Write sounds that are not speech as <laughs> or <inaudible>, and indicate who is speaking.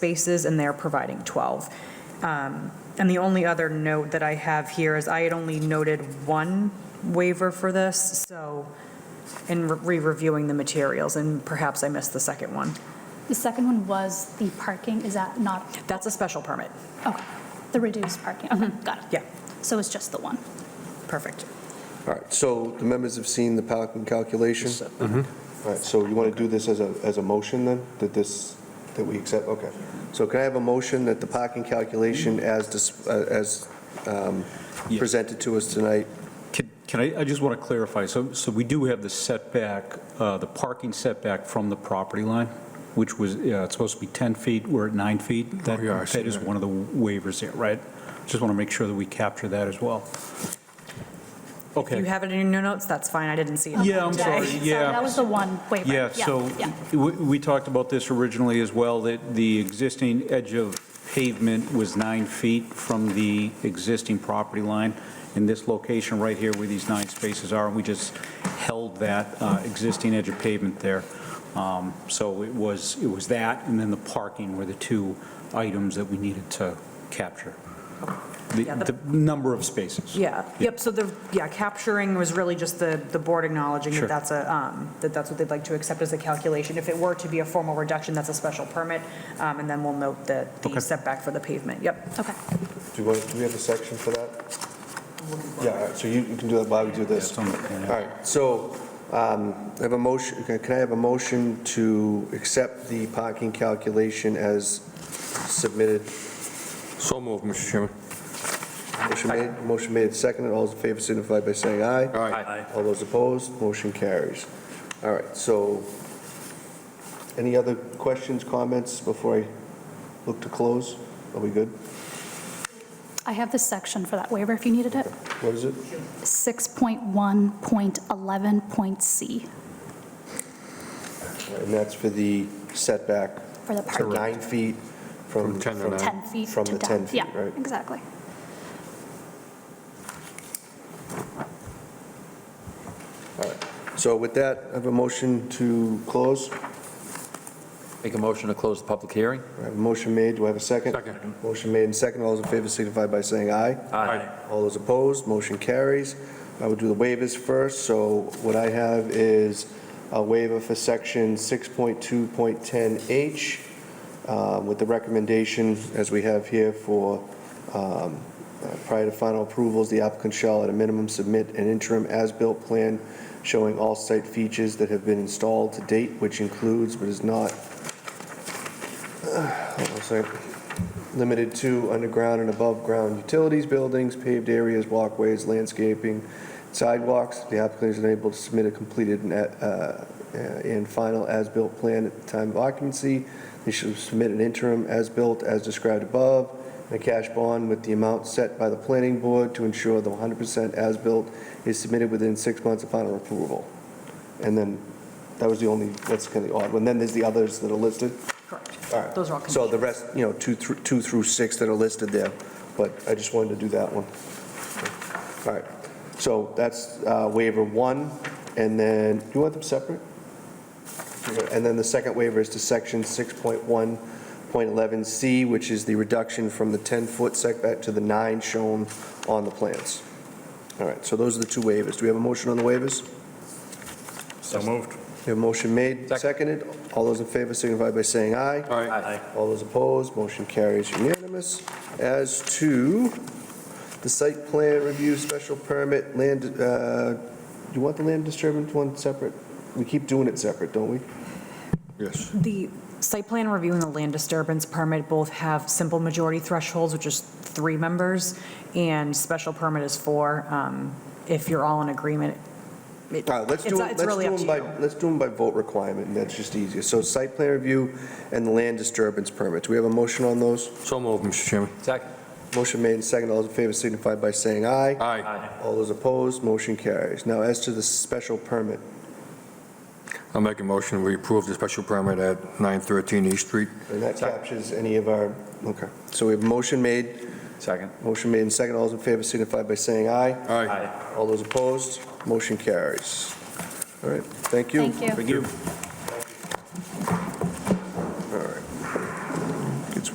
Speaker 1: spaces, and they're providing 12. Um, And the only other note that I have here is I had only noted one waiver for this, so in re- re-reviewing the materials, and perhaps I missed the second one.
Speaker 2: The second one was the parking, is that not,
Speaker 1: That's a special permit.
Speaker 2: okay, the reduced parking, okay, got it.
Speaker 1: Yeah,
Speaker 2: So it's just the one.
Speaker 1: perfect.
Speaker 3: All right, so the members have seen the parking calculation? Mm-hmm. All right, so you want to do this as a, as a motion then, that this, that we accept, okay. So can I have a motion that the parking calculation as, dis- uh, as um,
Speaker 4: Yeah.
Speaker 3: presented to us tonight?
Speaker 4: Can can I, I just want to clarify, so, so we do have the setback, uh, the parking setback from the property line, which was, yeah, it's supposed to be 10 feet, we're at 9 feet. That-
Speaker 5: Oh, yeah, I see
Speaker 4: That is
Speaker 5: that.
Speaker 4: one of the waivers there, right? Just want to make sure that we capture that as well.
Speaker 1: If you
Speaker 4: Okay,
Speaker 1: have it in your notes, that's fine, I didn't see it.
Speaker 4: Yeah, I'm
Speaker 2: Okay,
Speaker 4: sorry, yeah.
Speaker 2: That was the one waiver.
Speaker 4: yeah, so
Speaker 2: yeah.
Speaker 4: we we talked about this originally as well, that the existing edge of pavement was 9 feet from the existing property line. In this location right here where these nine spaces are, we just held that uh, existing edge of pavement there. Um, So it was, it was that, and then the parking were the two items that we needed to capture. The
Speaker 1: Yeah, the-
Speaker 4: the number of spaces.
Speaker 1: <laughs> Yeah, yep, so the, yeah, capturing was really just the, the board acknowledging that
Speaker 4: Sure.
Speaker 1: that's a, um, that that's what they'd like to accept as a calculation. If it were to be a formal reduction, that's a special permit, um, and then we'll note the, the
Speaker 4: Okay.
Speaker 1: setback for the pavement, yep.
Speaker 2: Okay,
Speaker 3: Do you want, do we have a section for that? Yeah, all right, so you you can do that while we do this.
Speaker 4: It's on the plan.
Speaker 3: All right, so um, I have a motion, okay, can I have a motion to accept the parking calculation as submitted?
Speaker 5: So moved, Mr. Chairman.
Speaker 3: Motion made, motion made, seconded, all those in favor signify by saying aye.
Speaker 5: Aye.
Speaker 3: All those opposed, motion carries. All right, so any other questions, comments before I look to close? Are we good?
Speaker 2: I have the section for that waiver if you needed it.
Speaker 3: What is it?
Speaker 2: 6.1.11. C
Speaker 3: And that's for the setback,
Speaker 2: for the
Speaker 3: so
Speaker 2: parking.
Speaker 3: nine feet from.
Speaker 5: From 10 to
Speaker 3: from-
Speaker 2: 10 feet to
Speaker 3: From
Speaker 2: down.
Speaker 3: the 10 feet, right?
Speaker 2: Yeah, exactly.
Speaker 3: So with that, I have a motion to close.
Speaker 6: Make a motion to close the public hearing?
Speaker 3: I have a motion made, do I have a second?
Speaker 5: Second.
Speaker 3: Motion made and second, all those in favor signify by saying aye.
Speaker 5: Aye.
Speaker 3: All those opposed, motion carries. I will do the waivers first, so what I have is a waiver for section 6.2.10H uh, with the recommendation, as we have here, for um, uh, prior to final approvals, the applicant shall at a minimum submit an interim as-built plan showing all site features that have been installed to date, which includes but is not, uh, hold on a second limited to underground and above-ground utilities, buildings, paved areas, walkways, landscaping, sidewalks. The applicant is unable to submit a completed and, uh, uh, and final as-built plan at the time of occupancy. They should submit an interim as-built as described above, and a cash bond with the amount set by the planning board to ensure the 100% as-built is submitted within six months of final approval. And then, that was the only, that's kind of the odd one. Then there's the others that are listed. All right.
Speaker 1: Correct. Those are all
Speaker 3: So
Speaker 1: conditions.
Speaker 3: the rest, you know, two through, two through six that are listed there, but I just wanted to do that one. All right, so that's uh, waiver one, and then, do you want them separate? And then the second waiver is to section 6.1.11C, which is the reduction from the 10-foot setback to the nine shown on the plans. All right, so those are the two waivers. Do we have a motion on the waivers?
Speaker 5: So moved.
Speaker 3: We have a motion made,
Speaker 6: Second.
Speaker 3: seconded. All those in favor signify by saying aye.
Speaker 5: Aye.
Speaker 3: All those opposed, motion carries unanimous. As to the site plan review, special permit, land, uh, do you want the land disturbance one separate? We keep doing it separate, don't we?
Speaker 5: Yes.
Speaker 1: The site plan review and the land disturbance permit both have simple majority thresholds, which is three members, and special permit is four. Um, If you're all in agreement, it-
Speaker 3: All right, let's do,
Speaker 1: it's
Speaker 3: it-
Speaker 1: it's
Speaker 3: let's
Speaker 1: really
Speaker 3: do
Speaker 1: up to
Speaker 3: them
Speaker 1: you.
Speaker 3: by, let's do them by vote requirement, and that's just easier. So site plan review and the land disturbance permit. Do we have a motion on those?
Speaker 5: So moved, Mr. Chairman.
Speaker 6: Second.
Speaker 3: Motion made and seconded. All those in favor signify by saying aye.
Speaker 5: Aye.
Speaker 3: All those opposed, motion carries. Now, as to the special permit,
Speaker 5: I'll make a motion, we approve the special permit at 913 East Street.
Speaker 3: and that captures any of our, okay. So we have a motion made
Speaker 6: Second.
Speaker 3: Motion made and second. All those in favor signify by saying aye.
Speaker 5: Aye.
Speaker 3: All those opposed, motion carries. All right, thank you.
Speaker 2: Thank you.
Speaker 4: Thank you.